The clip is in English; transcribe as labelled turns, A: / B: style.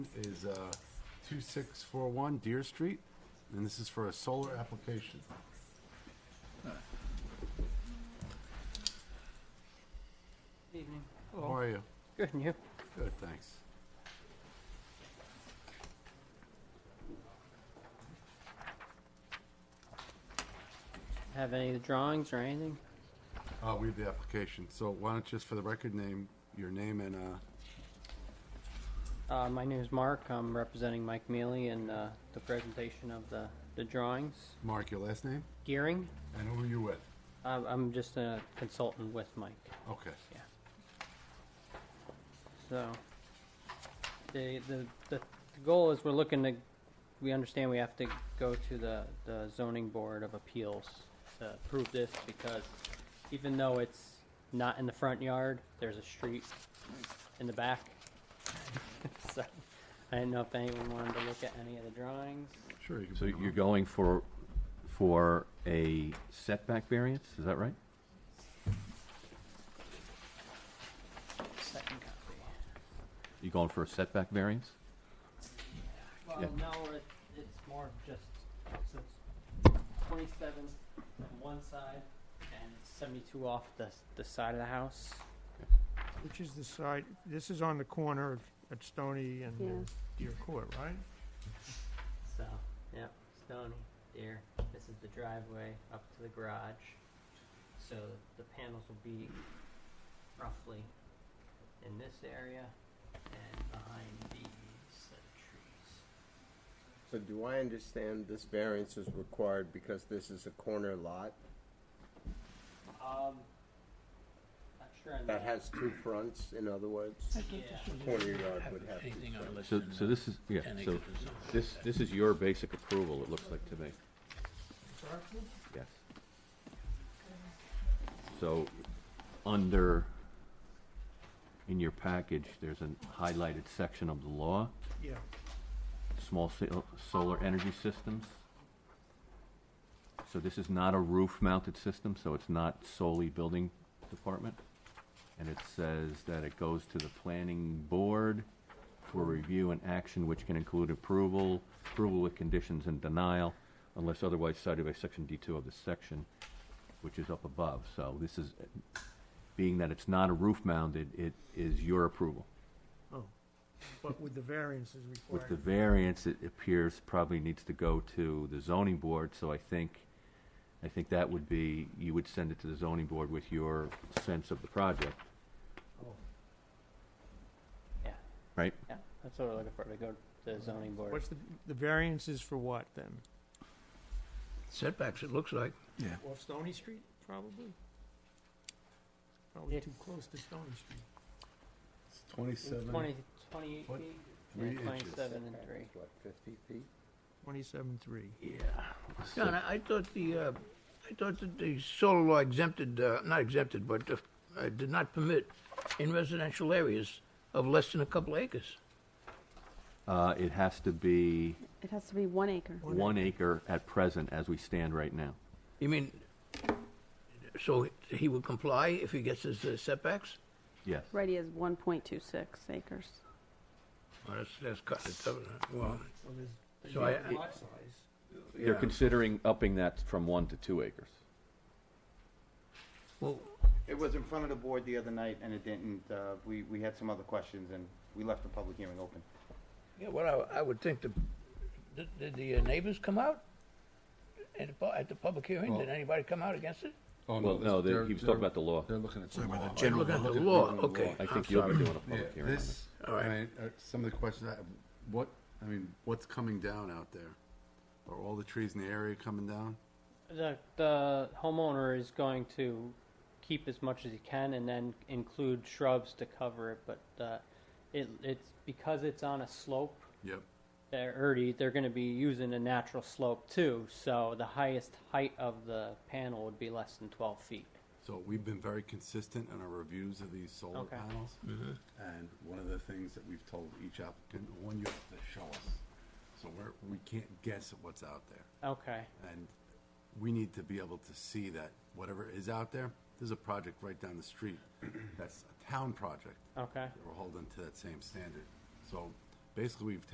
A: is uh, 2641 Deer Street, and this is for a solar application.
B: Evening.
A: How are you?
B: Good, and you?
A: Good, thanks.
B: Have any of the drawings or anything?
A: Uh, We have the application, so why don't you just for the record name, your name and, uh,
B: Uh, my name is Mark. I'm representing Mike Mealy in uh, the presentation of the, the drawings.
A: Mark, your last name,
B: Gearing.
A: and who are you with?
B: I'm, I'm just a consultant with Mike.
A: Okay.
B: So the, the the the goal is we're looking to we understand we have to go to the the zoning board of appeals to approve this because even though it's not in the front yard, there's a street in the back. so I didn't know if anyone wanted to look at any of the drawings.
A: Sure. you can
C: So
A: bring it
C: you're
A: on.
C: going for, for a setback variance, is that right?
B: Second copy.
C: You're going for a setback variance?
B: Well,
C: Yeah.
B: no, it, it's more just so it's 27 on one side and 72 off the the side of the house.
D: Which is the side, this is on the corner of- at Stony and Deer Court, right?
B: So, yeah, stony, deer. This is the driveway up to the garage. So the panels will be roughly in this area and behind these set of trees.
E: So do I understand this variance is required because this is a corner lot
B: Um, not sure on
E: that
B: that.
E: has two fronts, in other words?
B: yeah.
E: Corner yard would have two
F: Anything on
C: So,
F: listed,
C: so this is, yeah,
F: and it
C: so
F: goes on.
C: this, this is your basic approval, it looks like to me, yes. So, under, in your package, there's a highlighted section of the law,
D: Yeah.
C: small sa- solar energy systems. So this is not a roof-mounted system, so it's not solely building department. And it says that it goes to the planning board for review and action, which can include approval, approval with conditions and denial, unless otherwise cited by section D two of the section, which is up above. So this is, being that it's not a roof-mounted, it is your approval.
D: Oh, but with the variance is
C: With
D: required.
C: the variance, it appears probably needs to go to the zoning board, so I think, I think that would be, you would send it to the zoning board with your sense of the project,
B: yeah,
C: right?
B: yeah. That's what we're looking for to go to the zoning board.
D: What's the, the variance is for what then?
F: Setbacks, it looks like.
D: Off Stony Street, probably? Probably
B: Yes.
D: too close to Stony Street.
A: It's 27,
B: 20, 28
A: What?
B: feet?
A: Three
B: Yeah,
A: inches.
B: 27 and 3.
E: What, fifty feet?
D: Twenty-seven, three.
F: John, I I thought the, uh, I thought that the solar law exempted, uh, not exempted, but uh, uh, did not permit in residential areas of less than a couple acres.
C: Uh, it has to be
G: It has to be one acre.
C: one acre at present as we stand right now.
F: You mean, so he would comply if he gets his uh, setbacks?
C: Yes.
G: Right, he has 1.26 acres.
F: Well, that's, that's cutting it, uh, well,
D: Well, there's- there's
F: So I-
D: not lot size.
C: They're
F: yeah.
C: considering upping that from one to two acres.
F: well,
H: It was in front of the board the other night, and it didn't, uh, we, we had some other questions, and we left the public hearing open.
F: Yeah, well, I, I would think the, did, did the uh, neighbors come out? At the, pu- at the public hearing, did anybody come out against it? Oh,
A: oh,
C: Well,
A: this-
C: no, they-
A: they're-
C: he was
A: they're-
C: talking about the law.
A: They're looking at the law.
F: General
A: They're
F: law.
A: looking at
F: Law,
A: reading the
F: okay.
C: I
F: I'm
C: think you'll be
F: sorry.
C: doing a
A: Yeah,
C: public hearing on
A: this,
C: this.
F: All right.
A: I mean, uh, some of the questions, I what, I mean, what's coming down out there? Are all the trees in the area coming down?
B: The, the homeowner is going to keep as much as he can and then include shrubs to cover it, but, uh, it, it's, because it's on a slope,
A: Yep.
B: they're already, they're gonna be using a natural slope too, so the highest height of the panel would be less than twelve feet.
A: So we've been very consistent in our reviews of these solar
B: Okay.
A: panels. And one of the things that we've told each applicant, one, you have to show us. So we're, we can't guess at what's out there.
B: Okay,
A: And we need to be able to see that whatever is out there, there's a project right down the street. That's a town project.
B: okay,
A: that We're holding to that same standard. So basically, we've